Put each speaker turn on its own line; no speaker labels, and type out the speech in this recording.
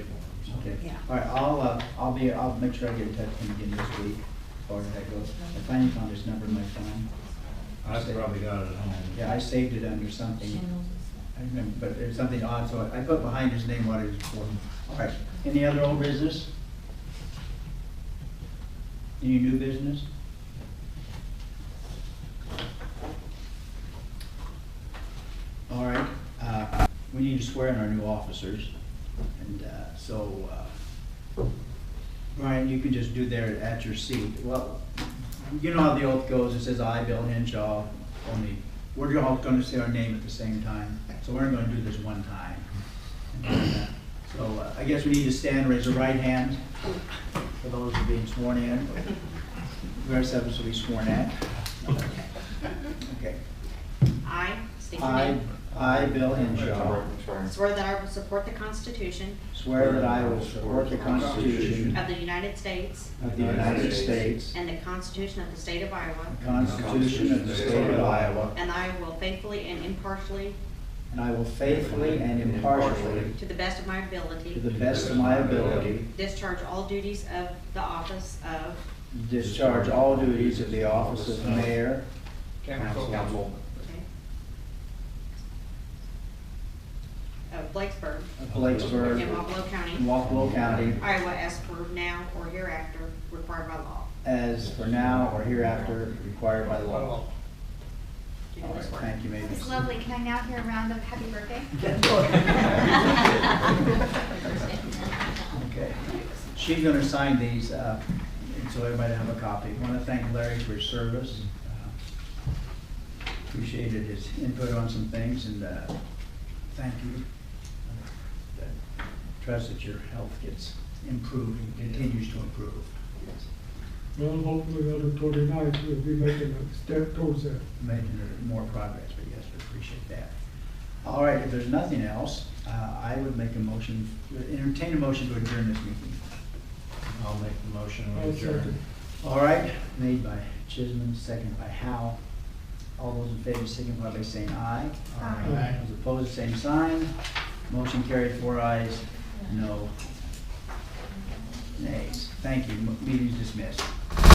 Okay.
Yeah.
All right, I'll, uh, I'll be, I'll make sure I get in touch with him again this week, or that goes. If I ain't found his number in my phone,
I've probably got it at home.
yeah, I saved it under something. I remember, but there's something odd, so I I put behind his name what it was for. All right, any other old business? Any new business? All right, uh, we need to swear in our new officers, and uh, so, uh, Brian, you can just do there at your seat. Well, you know how the oath goes, it says I, Bill Henshaw, only, we're all gonna say our name at the same time, so we're gonna do this one time. And, uh, So uh, I guess we need to stand, raise the right hand for those who are being sworn in. The rest of us will be sworn at. Okay.
I, state your
I,
name,
I, Bill Henshaw,
swear that I will support the Constitution
swear that I will support the Constitution
of the United States
of the United States,
and the Constitution of the State of Iowa,
the Constitution of the State of Iowa,
and I will faithfully and impartially,
and I will faithfully and impartially,
to the best of my
to the
ability,
best of my ability,
discharge all duties of the office of
discharge all duties of the office of mayor,
Council.
okay, of Blacksburg,
of
in
Blacksburg,
Wapello
and
County,
Walpole County,
Iowa, as per now or hereafter required by law.
as for now or hereafter required by law.
Do
All right,
this work.
thank you, Mavis.
It's lovely. Can I now hear a round of happy birthday?
Okay. She's gonna sign these, uh, and so everybody have a copy. Want to thank Larry for his service. Uh, Appreciated his input on some things, and uh, thank you. Uh, Trust that your health gets improved and continues to improve.
Well, hopefully on the 29th, we'll be making a step towards that.
making more progress, but yes, we appreciate that. All right, if there's nothing else, uh, I would make a motion, entertain a motion to adjourn this meeting.
I'll make the motion
I'll
to adjourn.
second.
All right, made by Chisholm, second by Howe. All those in favor signify by saying aye.
Aye.
Aye.
Those opposed, same sign. Motion carried, four ayes, no nays. Thank you, meeting is dismissed.